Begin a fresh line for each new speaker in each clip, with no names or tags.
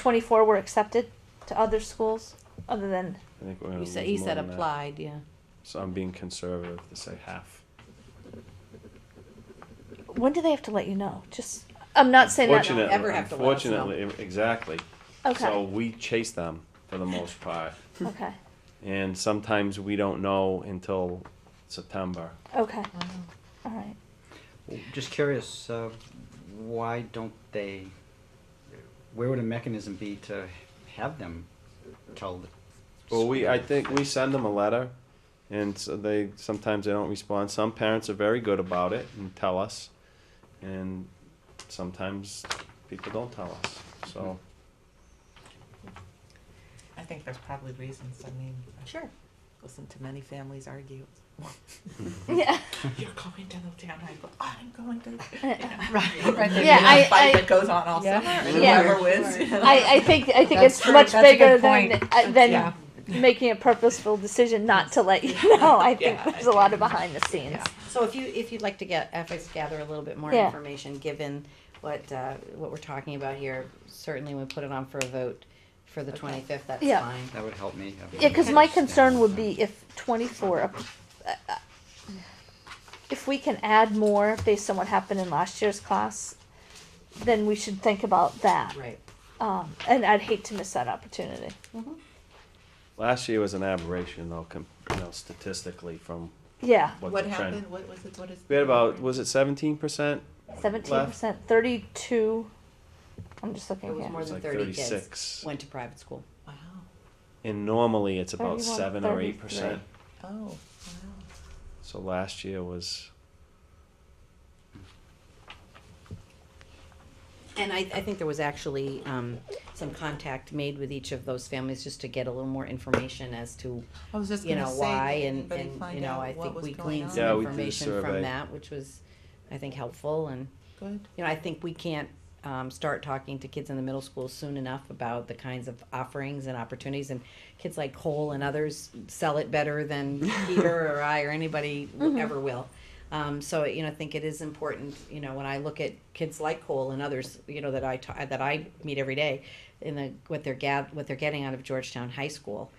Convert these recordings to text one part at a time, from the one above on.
twenty-four were accepted to other schools other than,
I think we're gonna
You
lose
said, you
more
said
than that.
applied, yeah.
So I'm being conservative to say half.
when do they have to let you know? Just, I'm not saying that.
Fortunate. ever have to let us know.
Unfortunately, exactly. So
Okay,
we chase them for the most part,
okay,
and sometimes we don't know until September.
okay, all right.
Just curious, uh, why don't they, where would a mechanism be to have them tell the?
Well, we, I think we send them a letter, and so they, sometimes they don't respond. Some parents are very good about it and tell us, and sometimes people don't tell us, so.
I think there's probably reasons, I mean. I've
Sure.
Listened to many families argue.
Yeah,
Mm-hmm.
You're going to the town high school, I'm going to.
Right, right there.
Yeah, I-
Fight
I-
that goes on all
Yeah.
summer, and
Yeah.
whoever wins. you know.
I, I think, I think
That's
it's
true.
much
That's a
bigger
good
than,
point.
uh, than
Yeah.
making a purposeful decision not to let you know. I think
Yeah.
there's a lot of behind the scenes.
Yeah.
So if you, if you'd like to get, if I gather a little bit more
Yeah.
information, given what, uh, what we're talking about here, certainly we put it on for a vote for the twenty-fifth, that's
Yeah.
fine.
That would help me. I would
Yeah, because my
understand.
concern would be if twenty-four, uh, uh, if we can add more based on what happened in last year's class, then we should think about that.
Right.
Um, and I'd hate to miss that opportunity.
Last year was an aberration though, com, you know, statistically from
Yeah,
what the
What
trend.
happened, what was it, what is?
We had about, was it seventeen percent?
seventeen percent, thirty-two, I'm just
It
looking
was
here.
more
It's like
than thirty kids
thirty-six.
went to private school.
Wow,
And normally it's about
31,
seven or eight
33.
percent.
oh, wow.
So last year was,
And I, I think there was actually, um, some contact made with each of those families just to get a little more information as to,
I was just
you
gonna
know,
say,
why
did
and,
anybody
and, you
find
know,
out
I
what
think
was
we
going
gleaned
Yeah,
some
we did a
information
survey.
from that, which was, I think, helpful and.
Good,
you know, I think we can't um, start talking to kids in the middle school soon enough about the kinds of offerings and opportunities. And kids like Cole and others sell it better than Peter or I or anybody ever will. Um, so you know, I think it is important. You know, when I look at kids like Cole and others, you know, that I ta- that I meet every day, in the what they're gath- what they're getting out of Georgetown High School,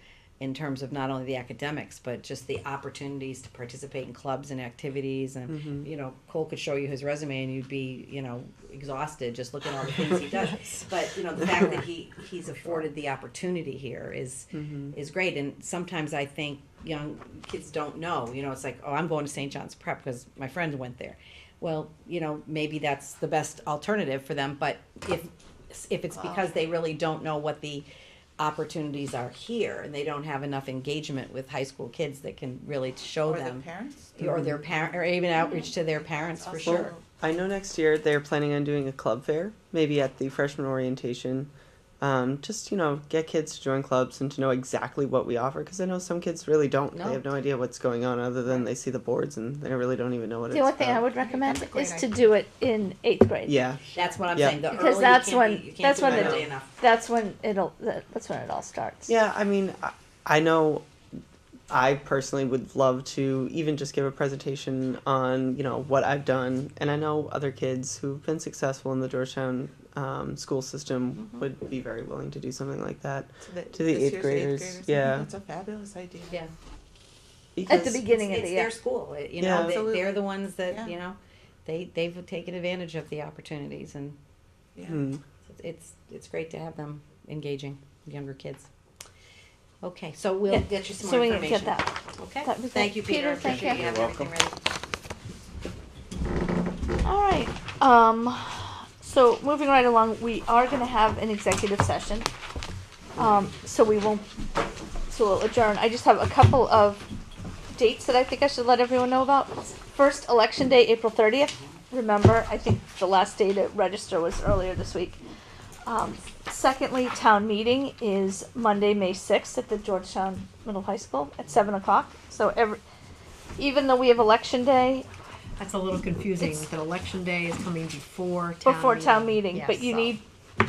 in terms of not only the academics but just the opportunities to participate in clubs and activities and you know cole could show you his resume and you'd be you know exhausted just looking at all the things he does but you know the fact that he he's afforded the opportunity here is- is great and sometimes i think young kids don't know you know it's like oh i'm going to st john's prep because my friend went there well you know maybe that's the best alternative for them but if if it's because they really don't know what the opportunities are here and they don't have enough engagement with high school kids that can really show
or the
them
parents?
or their parent or even outreach to their parents for
Also-
sure
I know next year they're planning on doing a club fair, maybe at the freshman orientation. Um, just you know, get kids to join clubs and to know exactly what we offer because I know some kids really don't.
No.
They have no idea what's going on other than they see the boards and they really don't even know what
The
it's
only thing I
about.
would recommend
That's a great
is to do it in eighth grade.
Yeah,
that's what i'm
Yeah.
saying the
Because
early
that's
you can't
when-
be- you can't
that's
do
when
it
the-
early enough
That's when it'll, that- that's when it all starts.
yeah. I mean, I, I know. I personally would love to even just give a presentation on you know what I've done, and I know other kids who've been successful in the Georgetown um, school system would be very willing to do something like that.
So that-
to the
this
eighth
year's
graders,
I think
yeah.
That's a fabulous idea.
yeah
At the
Because-
beginning
it's,
of the
it's
year.
their school. It- You
Yeah.
know, they,
Absolutely.
they're the ones that
Yeah.
you know, they they've taken advantage of the opportunities, and
Yeah.
Hmm.
it's it's great to have them engaging younger kids. Okay, so we'll
Yeah,
get you some
So
more
we can
information.
get that.
Okay,
that'd be
thank
great.
you,
Peter,
Peter.
thank
Appreciate
you.
have
You're
everything ready.
All right, um, so moving right along, we are gonna have an executive session. Um, so we won't, so we'll adjourn. I just have a couple of dates that I think I should let everyone know about. First, election day, April thirtieth. Remember, I think the last day to register was earlier this week. Um, secondly, town meeting is Monday, May sixth at the Georgetown Middle High School at seven o'clock. So every, even though we have election day,
That's a little confusing,
It's-
that election day is coming before town meeting.
before town meeting, but
Yes.
you need,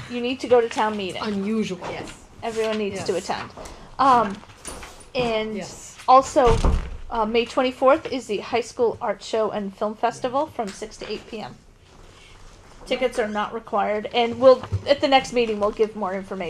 you need to go to town meeting.
Unusual.
Yes.
Everyone needs to
Yes.
attend. Um, and
Yes.
also, uh, May twenty-fourth is the high school art show and film festival from six to eight PM. Tickets are not required and we'll, at the next meeting, we'll give more information.